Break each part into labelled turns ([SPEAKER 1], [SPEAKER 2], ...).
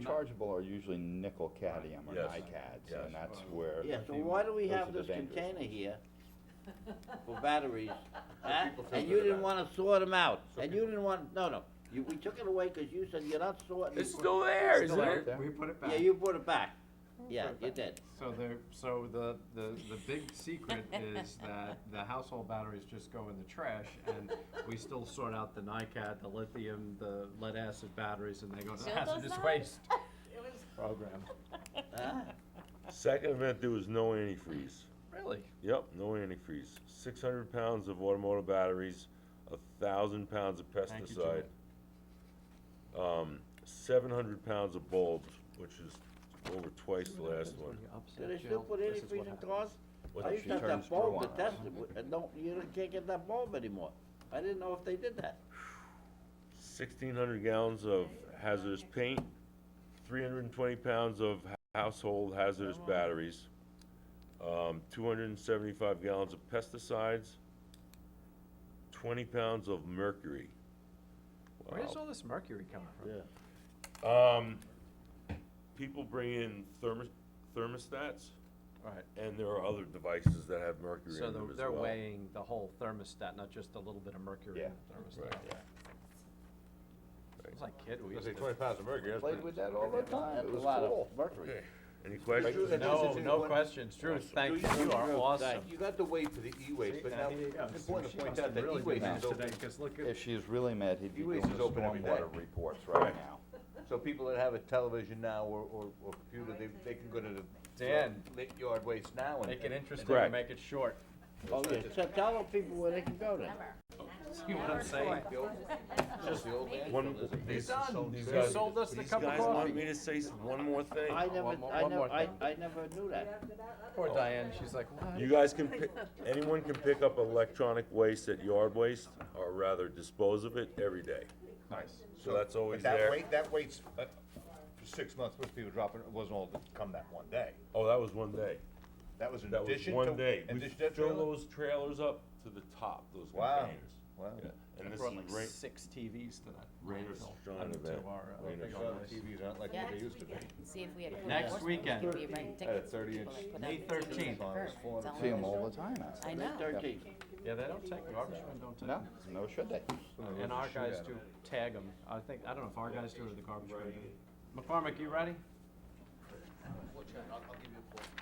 [SPEAKER 1] rechargeable are usually nickel cadmium or
[SPEAKER 2] Yes.
[SPEAKER 1] NiCads, and
[SPEAKER 2] Yes.
[SPEAKER 1] that's where.
[SPEAKER 3] Yeah, so why do we
[SPEAKER 1] Those
[SPEAKER 3] have
[SPEAKER 1] are the
[SPEAKER 3] this
[SPEAKER 1] dangerous
[SPEAKER 3] container here for batteries? huh?
[SPEAKER 2] people took
[SPEAKER 3] And
[SPEAKER 2] it
[SPEAKER 3] you didn't
[SPEAKER 2] back.
[SPEAKER 3] wanna sort them out,
[SPEAKER 2] So
[SPEAKER 3] and you didn't want, no, no, you, we took it away because you said you're not sorting.
[SPEAKER 4] It's still there,
[SPEAKER 1] Still
[SPEAKER 4] isn't
[SPEAKER 1] out
[SPEAKER 4] it?
[SPEAKER 1] there.
[SPEAKER 5] We put it back.
[SPEAKER 3] Yeah, you brought it back, yeah,
[SPEAKER 5] put it
[SPEAKER 3] you
[SPEAKER 5] back.
[SPEAKER 3] did,
[SPEAKER 5] So the, so the, the, the big secret is that the household batteries just go in the trash and we still sort out the NiCad, the lithium, the lead acid batteries and they go to the
[SPEAKER 6] Still does
[SPEAKER 5] hazardous
[SPEAKER 6] that?
[SPEAKER 5] waste
[SPEAKER 6] It was
[SPEAKER 5] program.
[SPEAKER 3] huh?
[SPEAKER 2] Second event, there was no antifreeze.
[SPEAKER 5] Really?
[SPEAKER 2] Yep, no antifreeze. Six hundred pounds of automotive batteries, a thousand pounds of
[SPEAKER 5] Thank you,
[SPEAKER 2] pesticide. Um, seven hundred pounds of bulbs, which is over twice the last one.
[SPEAKER 3] Do they still put any freezing cars?
[SPEAKER 2] What
[SPEAKER 3] I
[SPEAKER 2] the
[SPEAKER 3] used to have
[SPEAKER 1] turns
[SPEAKER 3] that
[SPEAKER 1] blue
[SPEAKER 3] bulb
[SPEAKER 1] on
[SPEAKER 3] that
[SPEAKER 1] us.
[SPEAKER 3] tested, with- and don't, you don't- can't get that bulb anymore, I didn't know if they did that.
[SPEAKER 2] Sixteen hundred gallons of hazardous paint, three hundred and twenty pounds of h- household hazardous batteries, um, two hundred and seventy-five gallons of pesticides, twenty pounds of mercury.
[SPEAKER 5] Where
[SPEAKER 2] Wow.
[SPEAKER 5] does all this mercury coming from?
[SPEAKER 2] Um, people bring in thermos, thermostats,
[SPEAKER 5] Right,
[SPEAKER 2] and there are other devices that have mercury
[SPEAKER 5] so
[SPEAKER 2] in them
[SPEAKER 5] they're,
[SPEAKER 2] as
[SPEAKER 5] they're
[SPEAKER 2] well.
[SPEAKER 5] weighing the whole thermostat, not just a little bit of mercury
[SPEAKER 1] Yeah.
[SPEAKER 5] in the
[SPEAKER 2] Right.
[SPEAKER 5] thermostat. It was like kid, we
[SPEAKER 7] I
[SPEAKER 5] used
[SPEAKER 7] say
[SPEAKER 5] to.
[SPEAKER 7] twenty pounds of mercury, that's
[SPEAKER 1] Played
[SPEAKER 7] pretty-
[SPEAKER 1] with that all the time,
[SPEAKER 3] That's
[SPEAKER 1] it
[SPEAKER 3] a
[SPEAKER 1] was
[SPEAKER 3] lot of
[SPEAKER 1] cool.
[SPEAKER 3] mercury.
[SPEAKER 2] Okay. Any questions?
[SPEAKER 7] Right.
[SPEAKER 5] No,
[SPEAKER 7] Is it-
[SPEAKER 5] no questions, Drew, thank you, you are
[SPEAKER 3] Drew,
[SPEAKER 5] awesome.
[SPEAKER 3] thank
[SPEAKER 7] You got to wait for the e-waste, but now, it's important to point out that e-waste is open.
[SPEAKER 5] look
[SPEAKER 1] If she's really mad, he'd be
[SPEAKER 7] He
[SPEAKER 1] doing
[SPEAKER 7] raises
[SPEAKER 1] the
[SPEAKER 7] open every day.
[SPEAKER 1] stormwater reports right now.
[SPEAKER 7] So people that have a television now or, or, or computer, they, they can go to the.
[SPEAKER 5] Dan.
[SPEAKER 7] Lit yard waste now and.
[SPEAKER 5] Make it interesting
[SPEAKER 2] Correct.
[SPEAKER 5] and make it short.
[SPEAKER 3] Oh, yeah, so tell the people where they can go then.
[SPEAKER 5] See what I'm saying?
[SPEAKER 7] The old-
[SPEAKER 5] Just-
[SPEAKER 7] the old man
[SPEAKER 2] One,
[SPEAKER 7] builders.
[SPEAKER 2] these, these
[SPEAKER 5] You
[SPEAKER 2] guys,
[SPEAKER 5] sold us the
[SPEAKER 2] these
[SPEAKER 5] cup of
[SPEAKER 2] guys want me
[SPEAKER 5] coffee.
[SPEAKER 2] to say s- one more thing.
[SPEAKER 3] I never,
[SPEAKER 5] more-
[SPEAKER 3] I
[SPEAKER 5] one more
[SPEAKER 3] never, I,
[SPEAKER 5] thing.
[SPEAKER 3] I never knew that.
[SPEAKER 5] Poor Diane, she's like, what?
[SPEAKER 2] You guys can, pick- anyone can pick up electronic waste at yard waste, or rather dispose of it every day.
[SPEAKER 7] Nice.
[SPEAKER 2] So that's always
[SPEAKER 7] But that
[SPEAKER 2] there.
[SPEAKER 7] wait, that waits, uh, for six months, most people dropping, it It wasn't all to come that one day.
[SPEAKER 2] Oh, that was one day.
[SPEAKER 7] That was in
[SPEAKER 2] That was
[SPEAKER 7] addition to.
[SPEAKER 2] one day.
[SPEAKER 7] in
[SPEAKER 2] We
[SPEAKER 7] addition to that
[SPEAKER 2] fill
[SPEAKER 7] trailer?
[SPEAKER 2] those trailers up to the top, those
[SPEAKER 7] Wow.
[SPEAKER 2] containers.
[SPEAKER 7] Wow.
[SPEAKER 2] Yeah. And this
[SPEAKER 5] Brought like
[SPEAKER 2] is rain,
[SPEAKER 5] six TVs to that.
[SPEAKER 2] Rainer
[SPEAKER 5] landfill,
[SPEAKER 2] Strong
[SPEAKER 5] I mean, to
[SPEAKER 2] event.
[SPEAKER 5] our, uh,
[SPEAKER 2] Rainer
[SPEAKER 5] big
[SPEAKER 7] Well,
[SPEAKER 5] old
[SPEAKER 7] the
[SPEAKER 5] place.
[SPEAKER 7] TVs aren't like what they used to be.
[SPEAKER 6] See if we had.
[SPEAKER 5] Next weekend.
[SPEAKER 6] It'd be ridiculous.
[SPEAKER 7] At a 30
[SPEAKER 6] People
[SPEAKER 7] inch.
[SPEAKER 6] that put
[SPEAKER 5] May
[SPEAKER 6] out these
[SPEAKER 5] 13th.
[SPEAKER 6] big birds.
[SPEAKER 7] Four
[SPEAKER 6] It's
[SPEAKER 1] See
[SPEAKER 6] all
[SPEAKER 1] them
[SPEAKER 6] over.
[SPEAKER 1] all the time out.
[SPEAKER 6] I know.
[SPEAKER 3] Thirteen,
[SPEAKER 5] Yeah, they don't take, garbage men don't take.
[SPEAKER 1] No, no should they?
[SPEAKER 5] And our guys do tag them. I think, I don't know if our guys do or the garbage men do. McCormick, you ready?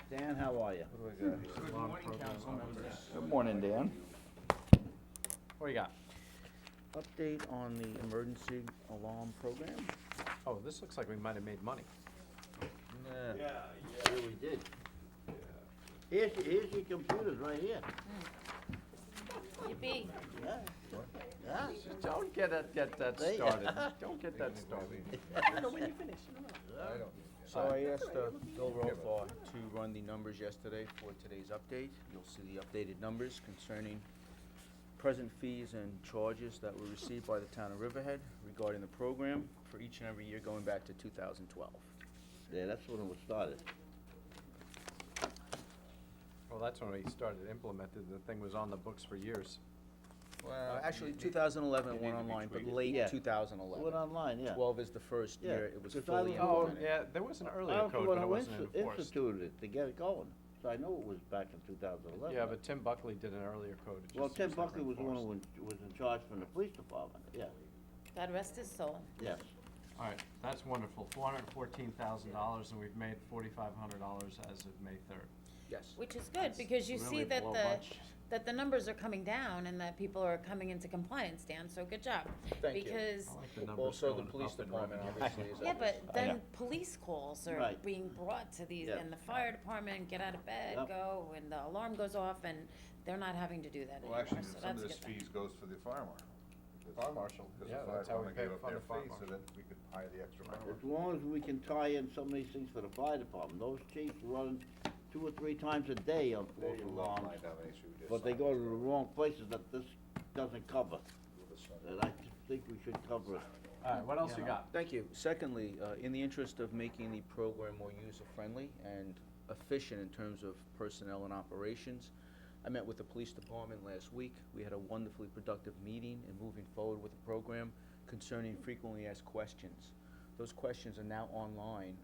[SPEAKER 3] Dan, how are you?
[SPEAKER 5] Good morning, council members.
[SPEAKER 1] Good morning, Dan.
[SPEAKER 5] What do you got?
[SPEAKER 3] Update on the emergency alarm program?
[SPEAKER 5] Oh, this looks like we might have made money.
[SPEAKER 3] Yeah, we did. Here's, here's your computers right here.
[SPEAKER 6] Yippee.
[SPEAKER 3] Yeah. Yeah.
[SPEAKER 5] Don't get that, get that
[SPEAKER 3] They-
[SPEAKER 5] started. Don't get that started.
[SPEAKER 8] So I asked uh, Bill Rothar to run the numbers yesterday for today's update. You'll see the updated numbers concerning present fees and charges that were received by the town of Riverhead regarding the program for each and every year going back to 2012.
[SPEAKER 3] Yeah, that's when it was started.
[SPEAKER 5] Well, that's when we started implementing. The thing was on the books for years.
[SPEAKER 8] Well, Uh, actually, 2011 it went online, but late
[SPEAKER 3] Yeah. It went
[SPEAKER 8] 2011.
[SPEAKER 3] online, yeah.
[SPEAKER 8] 12 is the first
[SPEAKER 3] Yeah,
[SPEAKER 8] year it was
[SPEAKER 3] 'cause I
[SPEAKER 8] fully
[SPEAKER 3] don't- oh,
[SPEAKER 5] Oh,
[SPEAKER 8] implemented.
[SPEAKER 5] yeah, there was an
[SPEAKER 3] I
[SPEAKER 5] earlier
[SPEAKER 3] was the
[SPEAKER 5] code,
[SPEAKER 3] one
[SPEAKER 5] but it
[SPEAKER 3] who
[SPEAKER 5] wasn't
[SPEAKER 3] insti-
[SPEAKER 5] enforced.
[SPEAKER 3] Instituted it to get it going, so I know it was back in two thousand eleven.
[SPEAKER 5] Yeah, but Tim Buckley did an earlier code. it
[SPEAKER 3] Well,
[SPEAKER 5] just
[SPEAKER 3] Tim
[SPEAKER 5] never
[SPEAKER 3] Buckley was the one who
[SPEAKER 5] enforced.
[SPEAKER 3] was was in charge from the police department, yeah,
[SPEAKER 6] God rest his soul.
[SPEAKER 3] yes.
[SPEAKER 5] All right, that's wonderful. Four hundred and fourteen thousand dollars, and we've made forty-five hundred dollars as of May third.
[SPEAKER 8] Yes.
[SPEAKER 6] Which is good, because you see
[SPEAKER 5] really
[SPEAKER 6] that
[SPEAKER 5] below
[SPEAKER 6] the,
[SPEAKER 5] budget.
[SPEAKER 6] that the numbers are coming down and that people are coming into compliance, Dan, so good job.
[SPEAKER 8] Thank you.
[SPEAKER 6] Because,
[SPEAKER 5] I like the numbers
[SPEAKER 8] Also, the
[SPEAKER 5] going
[SPEAKER 8] police
[SPEAKER 5] up in
[SPEAKER 8] department
[SPEAKER 5] revenue.
[SPEAKER 8] obviously is.
[SPEAKER 6] yeah, but then
[SPEAKER 1] know.
[SPEAKER 6] police calls are
[SPEAKER 3] Right.
[SPEAKER 6] being brought to these,
[SPEAKER 3] Yeah.
[SPEAKER 6] and the fire department, get out of bed,
[SPEAKER 3] Yep.
[SPEAKER 6] go, and the alarm goes off, and they're not having to do that
[SPEAKER 7] Well,
[SPEAKER 6] anymore,
[SPEAKER 7] actually,
[SPEAKER 6] so
[SPEAKER 7] some
[SPEAKER 6] that's
[SPEAKER 7] of
[SPEAKER 6] a
[SPEAKER 7] this
[SPEAKER 6] good thing.
[SPEAKER 7] fees goes for the fire marshal.
[SPEAKER 5] Fire marshal,
[SPEAKER 7] Because
[SPEAKER 5] yeah,
[SPEAKER 7] the fire
[SPEAKER 5] that's how we
[SPEAKER 7] department
[SPEAKER 5] pay
[SPEAKER 7] gave up
[SPEAKER 5] for the
[SPEAKER 7] their
[SPEAKER 5] fire
[SPEAKER 7] fee so
[SPEAKER 5] marshal.
[SPEAKER 7] that we could hire the extra fire
[SPEAKER 3] As
[SPEAKER 7] marshal.
[SPEAKER 3] long as we can tie in some of these things for the fire department, those chiefs run two or three times a day on
[SPEAKER 7] They
[SPEAKER 3] false
[SPEAKER 7] didn't want
[SPEAKER 3] alarms,
[SPEAKER 7] to have an issue, we just
[SPEAKER 3] but they
[SPEAKER 7] signed
[SPEAKER 3] go
[SPEAKER 7] it.
[SPEAKER 3] to the wrong places that this doesn't cover,
[SPEAKER 7] We'll just sign it.
[SPEAKER 3] and I think we should cover it.
[SPEAKER 5] All right, what else you got?
[SPEAKER 8] Thank you. Secondly, uh, in the interest of making the program more user-friendly and efficient in terms of personnel and operations, I met with the police department last week. We had a wonderfully productive meeting and moving forward with the program concerning frequently asked questions. Those questions are now online